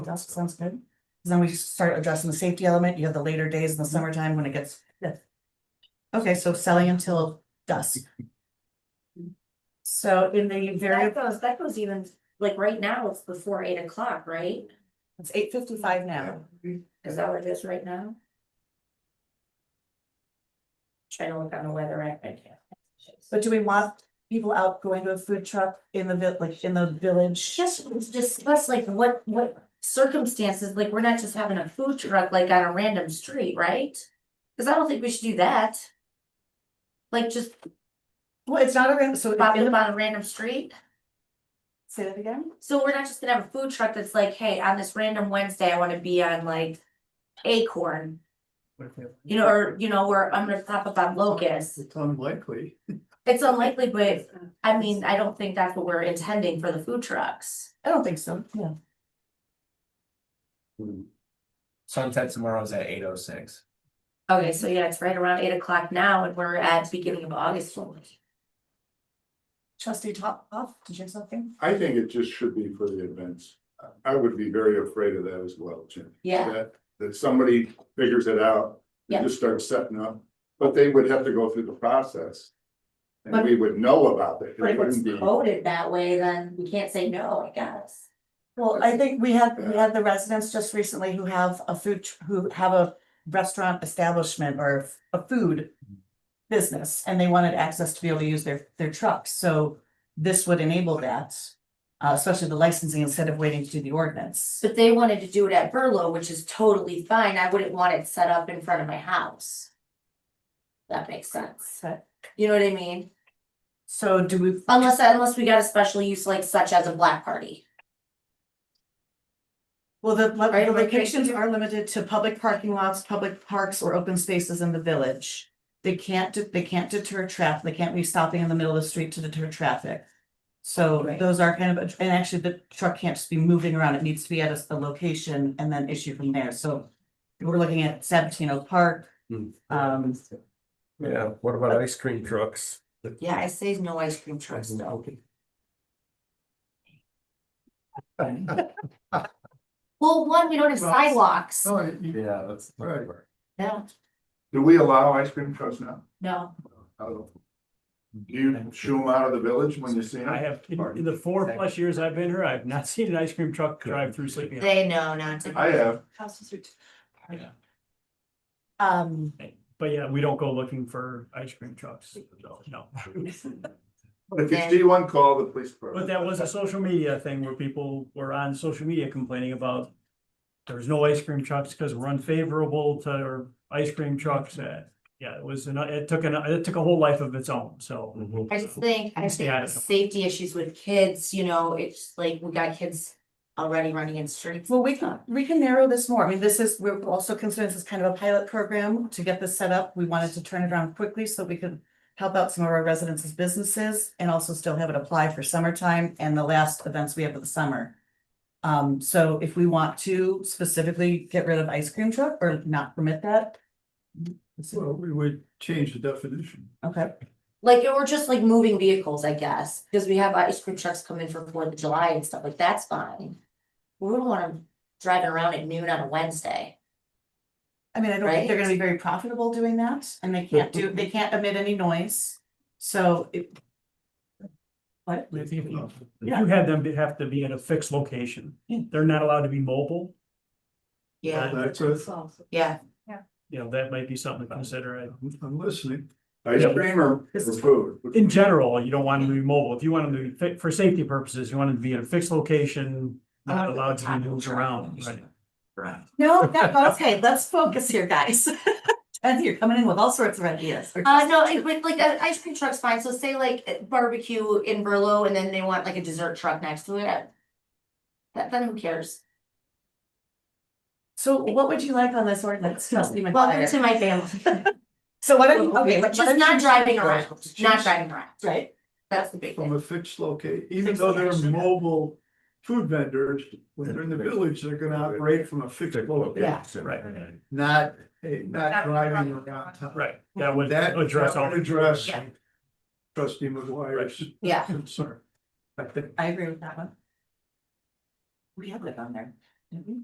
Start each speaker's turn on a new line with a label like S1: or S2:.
S1: That sounds good. 'Cause Then we start addressing the safety element. You have the later days in
S2: Mm-hmm.
S1: the summertime when it gets. Okay, so selling until dusk. So in the very,
S2: That goes, that goes even, like, right now, it's before eight o'clock, right?
S1: it's eight fifty-five now.
S2: Is that what it is right now? Trying to look on the weather app, I can't.
S1: But do we want people out going to a food truck in the vi- like in the village?
S2: Just let's discuss like what, what circumstances, like, we're not just having a food truck like on a random street, right? Cause I don't think we should do that. Like, just
S1: Well, it's not a, ran- so.
S2: pop it on a random street,
S1: Say that again?
S2: so we're not just gonna have a food truck that's like, hey, on this random Wednesday, I wanna be on like. Acorn, you know, or, you know, where I'm gonna pop up on Locust,
S3: It's unlikely.
S2: It's unlikely, but I mean, I don't think that's what we're intending for the food trucks.
S1: I don't think so, yeah.
S4: Sunset tomorrow's at eight oh six.
S2: Okay, so yeah, it's right around eight o'clock now and we're at beginning of August.
S1: Trustee Top off, did you have something?
S5: I think it just should be for the events. I would be very afraid of that as well, Jim.
S2: Yeah,
S5: That, that somebody figures it out, they
S2: Yeah.
S5: just start setting up, but they would have to go through the process. And
S2: But-
S5: we would know about it.
S2: but if
S5: It
S2: it's
S5: wouldn't be,
S2: voted that way, then we can't say no, I guess.
S1: Well, I think we had, we had the residents just recently who have a food, tr- who have a restaurant establishment or a food. Business and they wanted access to be able to use their, their trucks, so this would enable that. Uh, especially the licensing instead of waiting to do the ordinance.
S2: But they wanted to do it at Burlo, which is totally fine. I wouldn't want it set up in front of my house. That makes sense.
S1: So-
S2: You know what I mean?
S1: So do we,
S2: Unless, unless we got a special use like such as a black party.
S1: well, the,
S2: Right,
S1: the
S2: okay.
S1: locations are limited to public parking lots, public parks or open spaces in the village. They can't, de- they can't deter traffic, they can't be stopping in the middle of the street to deter traffic. So
S2: Right.
S1: those are kind of, and actually the truck can't just be moving around, it needs to be at a, a location and then issue from there, so. We're looking at Sabatino Park,
S3: Hmm.
S1: um,
S4: Yeah, what about ice cream trucks?
S2: Yeah, I say no ice cream trucks though. Well, one, we don't have
S3: Well, oh,
S2: sidewalks.
S3: No, you- you-
S4: Yeah, that's.
S3: Right.
S2: No,
S5: do we allow ice cream trucks now?
S2: no.
S5: I don't know. Do you shoo them out of the village when you see them?
S6: I have, in in the four plus years I've been here, I've not seen an ice cream truck drive through Sleepy Hollow.
S2: They know not
S5: I have,
S1: um,
S6: But yeah, we don't go looking for ice cream trucks, so, no.
S5: but if you
S2: Okay.
S5: see one, call the police
S6: But
S5: department.
S6: that was a social media thing where people were on social media complaining about there's no ice cream trucks because we're unfavorable to our ice cream trucks. Uh, Yeah, it was, an- it took, an it took a whole life of its own, so.
S2: I just think, I
S6: Yeah, I
S2: think
S6: know.
S2: safety issues with kids, you know, it's like we got kids already running in streets.
S1: Well, we can, we can narrow this more. I mean, this is, we're also considering this as kind of a pilot program to get this set up. We wanted to turn it around quickly so we could help out some of our residents' as businesses and also still have it apply for summertime and the last events we have of the summer. Um, so if we want to specifically get rid of ice cream truck or not permit that.
S3: Well, we would change the definition.
S1: Okay,
S2: Like, or just like moving vehicles, I guess, because we have ice cream trucks coming for Fourth of July and stuff like that's fine. We don't want them driving around at noon on a Wednesday.
S1: I mean, I don't think they're
S2: Right.
S1: gonna be very profitable doing that and they can't do, they can't emit any noise. So it. What?
S6: If you
S1: Yeah.
S6: you had them to have to be in a fixed location.
S1: Yeah.
S6: They're not allowed to be mobile.
S2: Yeah,
S3: That's it.
S2: yeah.
S6: You know, that might be something to consider. I-
S3: I'm- I'm listening.
S5: Ice cream or or food?
S6: In general, you don't want them to be mobile. If you want them to be fit for safety purposes, you want them to be in a fixed location, not allowed to be moved around, right?
S1: No, no, okay, let's focus here, guys. And you're coming in with all sorts of ideas.
S2: Uh, no, it would like, uh, ice cream truck's fine, so say like uh, barbecue in Berlo and then they want like a dessert truck next to it. uh, That, then who cares?
S1: So what would you like on this ordinance, trustee
S2: Welcome to
S1: McGuire?
S2: my family.
S1: So what are you, okay, what-
S2: Just not driving around, not
S3: Just-
S2: driving around,
S1: Right,
S2: that's the big
S3: From
S2: thing.
S3: a fixed location, even
S2: Fixed
S3: though they're
S2: location.
S3: mobile food vendors, when they're in the village, they're gonna operate from a fixed location.
S6: Right.
S3: Not, eh, not driving around town.
S6: Right, that would
S3: That
S6: address all.
S3: that would Address
S2: Yeah.
S3: trustee McGuire's
S2: Yeah,
S3: concern. I think
S1: I agree with that one. We have it on there.